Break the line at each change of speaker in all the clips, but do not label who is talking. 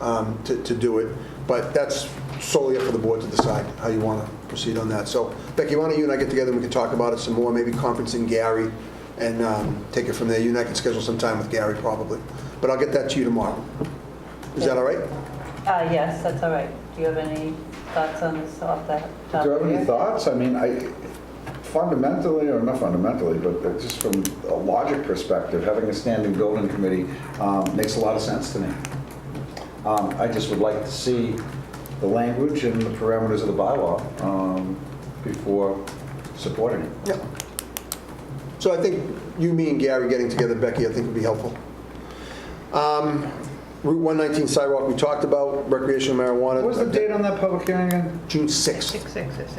um, to to do it, but that's solely up for the board to decide how you want to proceed on that. So Becky, why don't you and I get together, and we can talk about it some more, maybe conferencing Gary, and um, take it from there. You and I can schedule some time with Gary probably, but I'll get that to you tomorrow. Is that all right?
Uh, yes, that's all right. Do you have any thoughts on this off the top
Do you
of
have
your
any
head?
thoughts? I mean, I fundamentally, or not fundamentally, but just from a logic perspective, having a standing building committee um, makes a lot of sense to me. Um, I just would like to see the language and the parameters of the bylaw um, before supporting it.
Yeah. So I think you, me, and Gary getting together, Becky, I think would be helpful. Um, Route 119 sidewalk, we talked about recreational marijuana.
What was the date on that public hearing again?
June 6th
Six, six, six, six.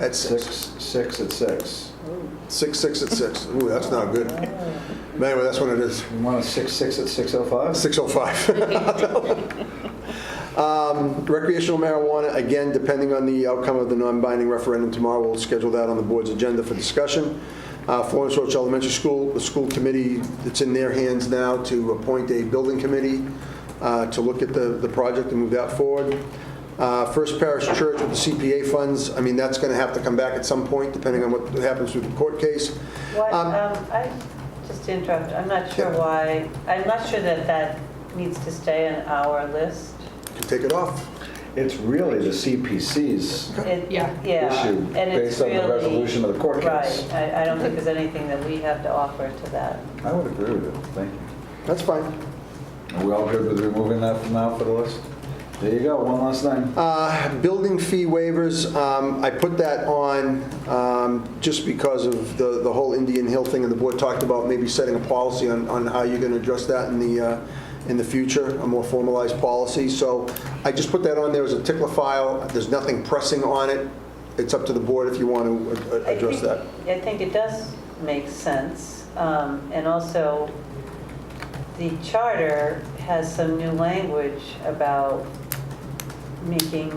at 6.
Six, six at six.
6, 6 at 6. Ooh, that's not good. But anyway, that's what it is.
You want a six, six oh at 6:05?
605. Um, Recreational marijuana, again, depending on the outcome of the non-binding referendum tomorrow, we'll schedule that on the board's agenda for discussion. Uh, Florence Roach Elementary School, the school committee, it's in their hands now to appoint a building committee uh, to look at the the project and move that forward. Uh, First Parish Church with the CPA funds, I mean, that's going to have to come back at some point, depending on what happens with the court case.
What,
Um,
um, I, just to interrupt, I'm not sure
Yeah.
why, I'm not sure that that needs to stay on our list.
Can take it off.
It's really the CPC's
It-
Yeah.
Yeah.
Issue
and it's
based on the
really-
resolution of the court case.
Right, I, I don't think there's anything that we have to offer to that.
I would agree with it, thank you.
That's fine.
Are we all good with removing that from now for the list? There you go, one last thing.
Uh, Building fee waivers, um, I put that on um, just because of the the whole Indian Hill thing, and the board talked about maybe setting a policy on on how you're going to address that in the, uh, in the future, a more formalized policy. So I just put that on there as a tickler file. There's nothing pressing on it. It's up to the board if you want to
I
address
think-
that.
I think it does make sense. Um, And also, the charter has some new language about making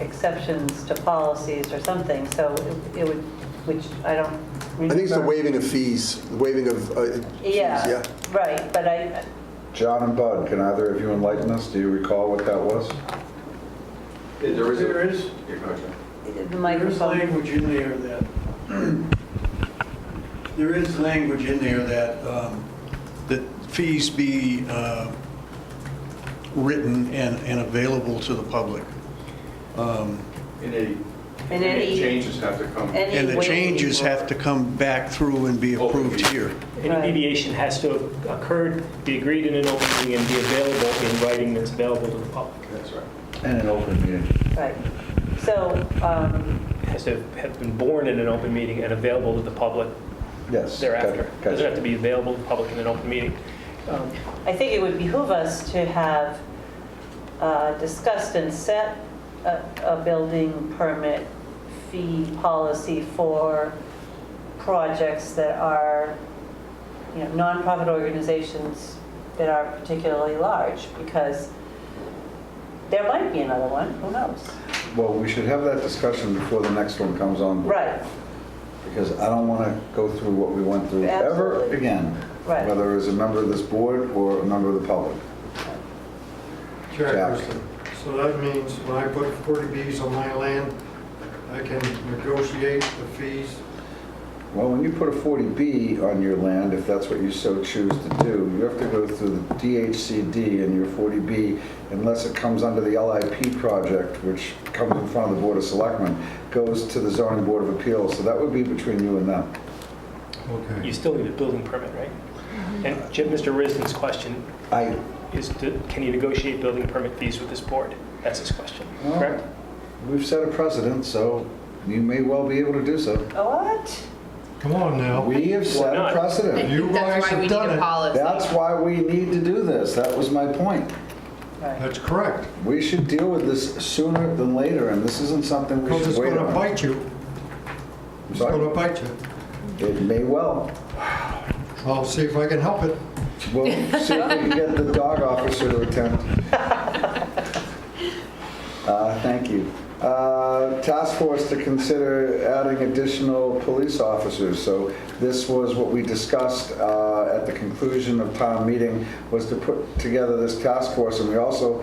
exceptions to policies or something, so it- it would, which I don't
I
remember.
think it's the waiving of fees, the waiving of uh, fees,
Yeah,
yeah.
right, but I,
John and Bud, can either of you enlighten us? Do you recall what that was?
There is. There is,
the
there is
microphone,
language in there that, there is language in there that, um, that fees be uh, written and, and available to the public.
And any,
And
and
any-
any changes have to come.
any
And the
waiving
changes have to come back through and be approved here.
Right.
Any deviation has to have occurred, be agreed in an open meeting, and be available in writing that's available to the public.
That's right.
And an open meeting.
Right, so, um,
It has to have been born in an open meeting and available to the public
Yes.
thereafter.
gotcha,
It
gotcha.
Doesn't have to be available to the public in an open meeting. Um,
I think it would behoove us to have uh, discussed and set a a building permit fee policy for projects that are, you know, nonprofit organizations that are particularly large, because there might be another one, who knows?
Well, we should have that discussion before the next one comes on.
Right,
Because I don't want to go through what we went through ever
Absolutely.
again.
Right.
Whether as a member of this board or a member of the public. Jack.
Chairperson. So that means when I put 40Bs on my land, I can negotiate the fees.
Well, when you put a 40B on your land, if that's what you so choose to do, you have to go through the DHCD and your 40B, unless it comes under the LIP project, which comes in front of the Board of Selectmen, goes to the zoning board of appeals, so that would be between you and them.
You still need a building permit, right?
Mm-hmm.
And Jim, Mr. Risden's question
I,
is, to- can you negotiate building permit fees with this board? That's his question, correct?
we've set a precedent, so you may well be able to do so.
what?
Come on now.
We have set a
not?
If
precedent.
you guys
That's why
have
we need
done
a
it.
policy.
That's why we need to do this, that was my point.
Right.
That's correct.
We should deal with this sooner than later, and this isn't something we
Because
should
it's
wait
going to
on.
bite you. It's
Sorry?
going to bite you.
It may well.
I'll see if I can help it.
We'll see if we can get the dog officer to attend. Uh, Thank you. Uh, Task force to consider adding additional police officers. So this was what we discussed uh, at the conclusion of town meeting, was to put together this task force. And we also